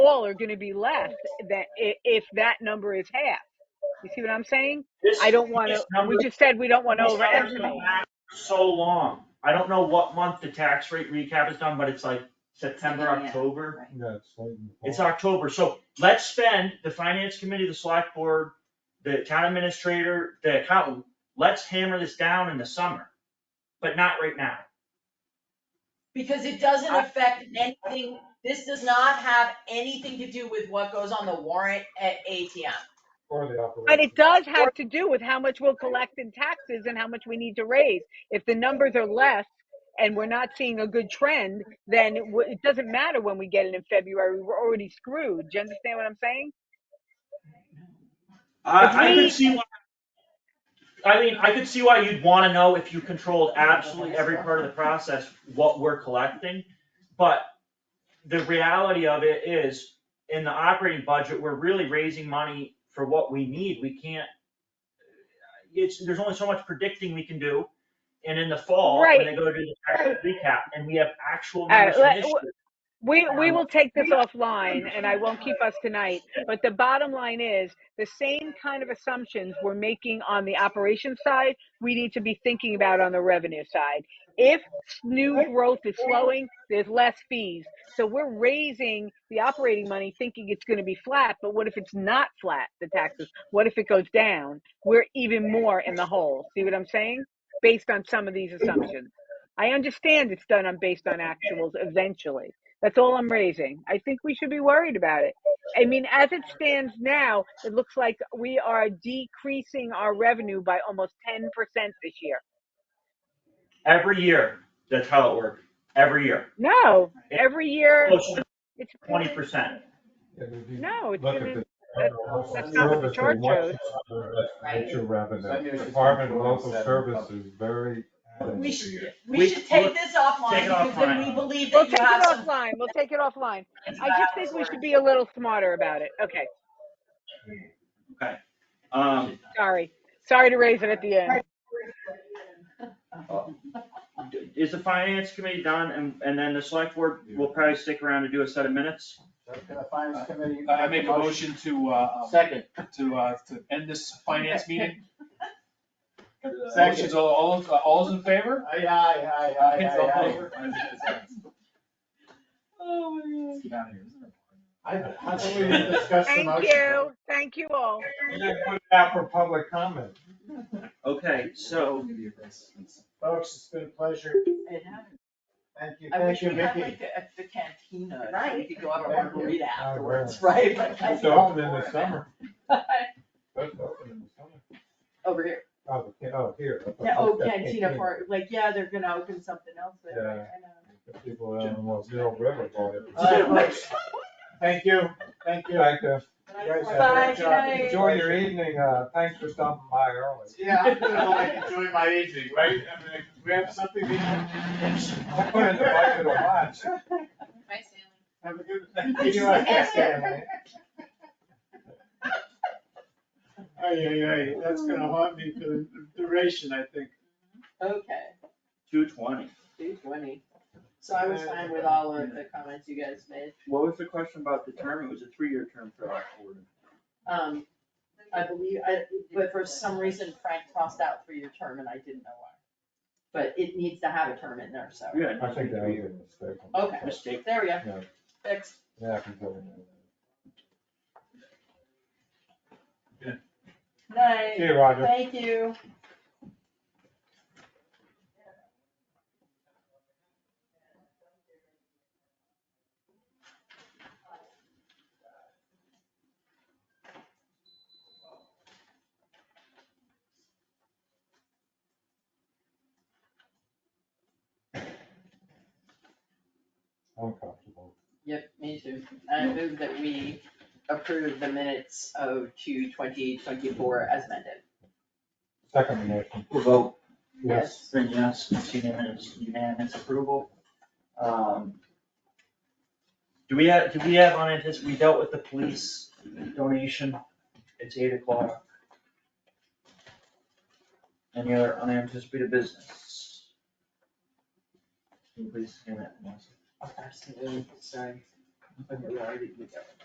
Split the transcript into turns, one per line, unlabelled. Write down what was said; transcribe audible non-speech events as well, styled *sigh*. all are going to be left that i- if that number is half. You see what I'm saying?
This,
I don't want
these
to. We
numbers,
just said we don't want to
these numbers go
overestimate.
back so long. I don't know what month the tax rate recap is done, but it's like September,
Beginning, yeah,
October.
right.
Yeah, it's late in the
It's
fall.
October, so let's spend the finance committee, the select board, the town administrator, the accountant, let's hammer this down in the summer, but not right now.
Because it doesn't
I-
affect anything, this does not have anything to do with what goes on the warrant at ATM.
Or the
But
operation.
it does have to do with how much we'll collect in taxes and how much we need to raise. If the numbers are less and we're not seeing a good trend, then it, w- it doesn't matter when we get it in February. We're already screwed. Do you understand what I'm saying? If
I, I could
we,
see why, I mean, I could see why you'd wanna know if you controlled absolutely every part of the process, what we're collecting. But the reality of it is, in the operating budget, we're really raising money for what we need. We can't, it's, there's only so much predicting we can do. And in the fall, when
right.
they go to the tax recap and we have actual
All right,
numbers from
let-
this
w-
year.
We, we
um,
will take this offline and I won't keep us tonight, but the bottom line is the same kind of assumptions we're making on the operations side, we need to be thinking about on the revenue side. If new growth is slowing, there's less fees. So we're raising the operating money thinking it's going to be flat, but what if it's not flat, the taxes? What if it goes down? We're even more in the hole. See what I'm saying? Based on some of these assumptions. I understand it's done on based on actuals eventually. That's all I'm raising. I think we should be worried about it. I mean, as it stands now, it looks like we are decreasing our revenue by almost 10% this year.
Every year, that's how it works, every year.
No,
It's
every year
close to
it's
twenty percent.
And if you
no, it's
look
going
at
to
the
that's
local
that's not what the
services,
chart
what's
shows.
the major
Send me
revenue?
a
Department of
6.4
Local
instead of
Service
public.
is very.
We should, we
We-
should take this offline
Take it
because then
offline.
we believe
We'll
that you
take it
have some
offline. We'll take it offline.
plans
I
about
just think we
for
should be a little smarter about it. Okay,
Okay, um,
sorry. Sorry to raise it at the end.
is the finance committee done and, and then the select board will probably stick around to do a set of minutes?
Can the finance committee
I I
make
make
a
a
motion?
motion to, uh, um,
Second.
to, uh, to end this finance meeting.
*laughs* Second.
Motion's all, all, all's in favor?
Aye, aye, aye, aye, aye, *laughs*
Oh my
Get out of here.
aye. I, how can we discuss the
Thank
motion?
you. Thank you all.
You gotta put it out for public comment.
Okay, so,
Folks, it's been a pleasure.
God. It happened.
Thank you,
I
thank
wish
you,
we had
Vicky.
like a- the cantina,
Right.
we could go have a
Thank you.
margarita
I agree.
afterwards, right? Like, I
It's
think-
open in the summer. It's open in the summer.
*laughs* Over here,
Oh, the can- oh, here. I thought-
yeah, oh,
I thought
cantina part, like, yeah, they're gonna open something else there, right? I
Yeah.
know.
The People down in Los Mill River. call it.
All right, folks, thank you, thank you.
Thank you.
You guys have a
Bye,
great
good
job.
night.
Enjoy your evening. Uh, thanks for stopping by early.
Yeah, I'm gonna like enjoy my evening, right? I mean, we have something we can.
I put in the bucket of lunch.
Bye, Stanley.
Have a good. You do
*laughs*
like that, Stanley. Ay, ay, ay, that's gonna haunt me for the duration, I think.
Okay,
two twenty,
two twenty, so I was fine with all of the comments you guys made,
what was the question about the term? It was a three-year term for our board.
um, I believe, I, but for some reason Frank crossed out three-year term and I didn't know why. But it needs to have a term in there, so,
Yeah.
I think that was a mistake.
okay,
Mistake.
there we go,
Yeah,
fixed.
yeah, I can go with that. See
Night,
you, Roger.
thank you.
I'm comfortable.
Yep, me too. I move that we approve the minutes of two twenty twenty-four as amended.
Second motion,
We'll vote,
yes.
then yes, it's unanimous, unanimous approval. Um, Do we have, do we have on it, we dealt with the police donation, it's eight o'clock. Any other unanticipated business? Can you Please scan that. Melissa?
Absolutely, sorry. Okay, we already did that.